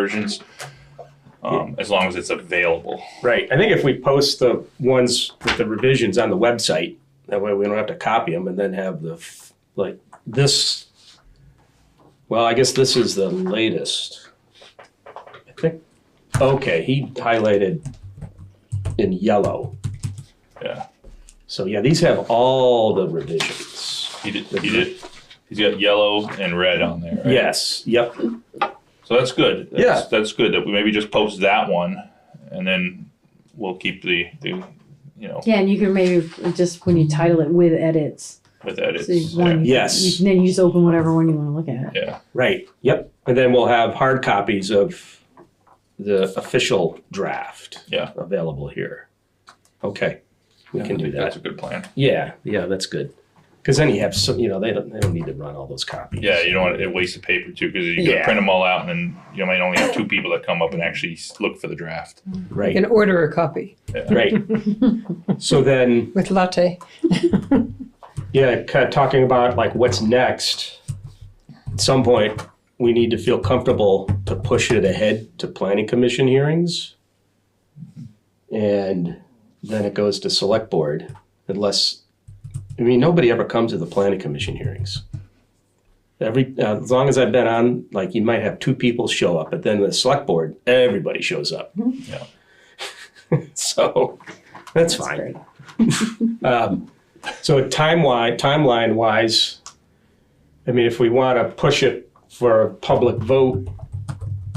versions, um, as long as it's available. Right. I think if we post the ones with the revisions on the website, that way we don't have to copy them and then have the, f- like, this. Well, I guess this is the latest. I think, okay, he highlighted in yellow. Yeah. So, yeah, these have all the revisions. He did. He did. He's got yellow and red on there. Right? Yes, yep, So that's good. That's, Yeah. That's good that we maybe just post that one, and then we'll keep the the you know Yeah, and you can maybe just when you title it with edits, with edits. so you- one, Yeah. you- Yes. you can- then you just open whatever one you want to look at. yeah. right, yep. And then we'll have hard copies of the official draft. Yeah. Available here. Okay, we Yeah, can I do think that. That's a good plan. Yeah, yeah, that's good. Because then you have some, you know, they don't, they don't need to run all those copies. Yeah, you don't want to waste the paper too because you got Yeah. to print them all out, and then you might only have two people that come up and actually s- look for the draft. You Right, can order a copy right. So then, with latte. yeah, kind of talking about like what's next. At some point, we need to feel comfortable to push it ahead to planning commission hearings. And then it goes to select board unless, I mean, nobody ever comes to the planning commission hearings. Every, uh, as long as I've been on, like you might have two people show up, but then the select board, everybody shows up. Yeah. so that's That's fine. great. Um, so timeline, timeline wise, I mean, if we want to push it for a public vote,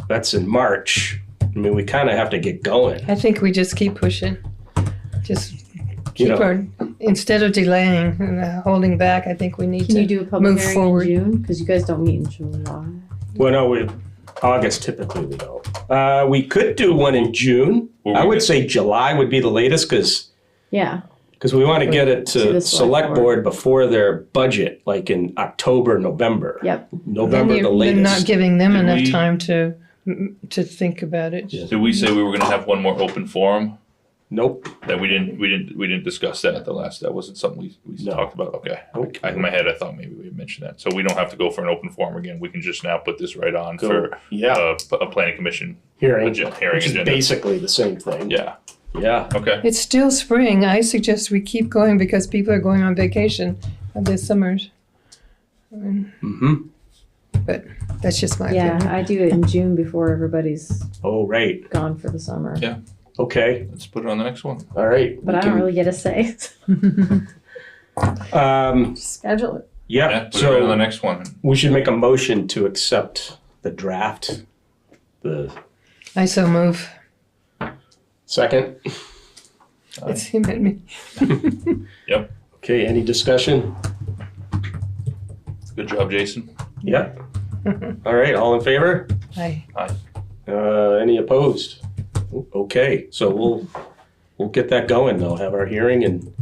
that's in March. I mean, we kind of have to get going. I think we just keep pushing. Just You keep know, on. Instead of delaying and uh, holding back, I think we need Can to. you do a public Move hearing forward. in June? Because you guys don't meet in July. well, no, we, August typically we don't. Uh, we could do one in June. Well, I we would could- say July would be the latest because Yeah, because we want to get it To to the select select board before their budget, like in October, November. yep. then November you're- the you're not latest. giving them Did enough we- time to to think about it. Yeah. Did we say we were going to have one more open forum? Nope. That we didn't, we didn't, we didn't discuss that at the last. That wasn't something we, we No. talked about. Okay, Nope. I, in my head, I thought maybe we mentioned that. So we don't have to go for an open forum again. We can just now put this right on Go- for yeah. uh, p- a planning commission Hearing, agen- hearing which is agenda. basically the same thing. Yeah. Yeah. Okay. It's still spring. I suggest we keep going because people are going on vacation this summer. Mm-hmm. That's just my Yeah, opinion. I do it in June before everybody's Oh, right. gone for the summer. Yeah. Okay. Let's put it on the next one. All right. But We I don't can- really get a say. Um, Schedule it. yeah. Yeah. Put it right on the so next one. we should make a motion to accept the draft. The I so move. second. It's him and me. Okay. Any discussion? Good job, Jason. Yep. All right. All in favor? I Uh, any opposed? Okay. So we'll we'll get that going. Though have our hearing and.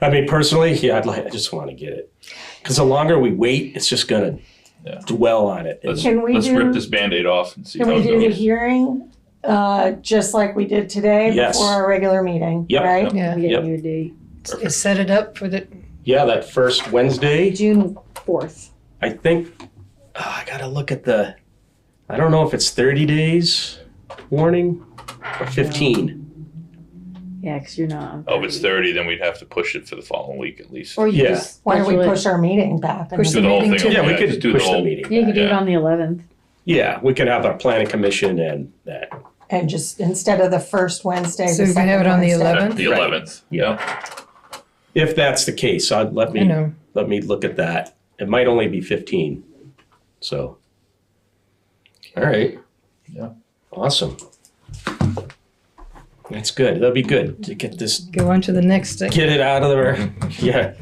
I mean, personally, yeah, I'd like. I just want to get it because the longer we wait, it's just gonna Yeah. dwell on it. Let's, Can we let's do- rip this Band-Aid off and see Can how we it do the goes. hearing, uh, just like we did today Yes. before our regular meeting, Yep. right? yeah. I'm getting Yep. you a date. Perfect. Set it up for the yeah, that first Wednesday. June fourth. I think ah, I gotta look at the. I don't know if it's thirty days warning or fifteen. Yeah, because you're not. on Oh, if it's 30. thirty, then we'd have to push it for the following week at least. Or you Yeah. just. Why don't we schedule it. push our meeting back? I Push Do mean, the whole meeting thing. to- Yeah, we yeah, could just do the push the whole. meeting. Yeah, you could do it Yeah. on the eleventh. Yeah, we could have our planning commission and that. And just, instead of the first Wednesday, So the we can have second it on the Wednesday. 11th? Uh, The Right. eleventh. Yeah. If that's the case, I'd, let you me know. let me look at that. It might only be fifteen, so. All right. Yeah. Awesome. That's good. That'll be good to get this, Go on to the next thing. get it out of there. Yeah.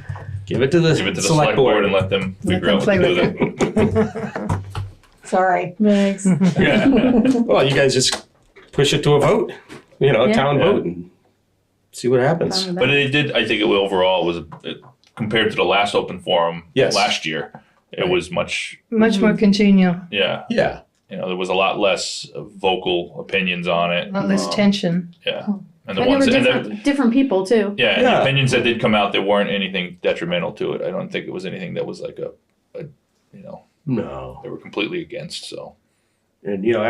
Give it to the Give it to the select board. and let them Let figure them out what to do. play with then. Sorry. Thanks. Yeah. Well, you guys just push it to a vote, you know, a Yeah. town Yeah. vote and see what happens. But it did. I think it overall was uh, compared to the last open forum Yes. last year. It Right. was much. Much more congenial, Yeah. Yeah. You know, there was a lot less vocal opinions on it. a lot less Um, tension. Yeah. And the And there were ones. And the, different, different people too. yeah, and Yeah. the opinions that did come out, there weren't anything detrimental to it. I don't think it was anything that was like a, a you know, No. they were completely against. So And, you know,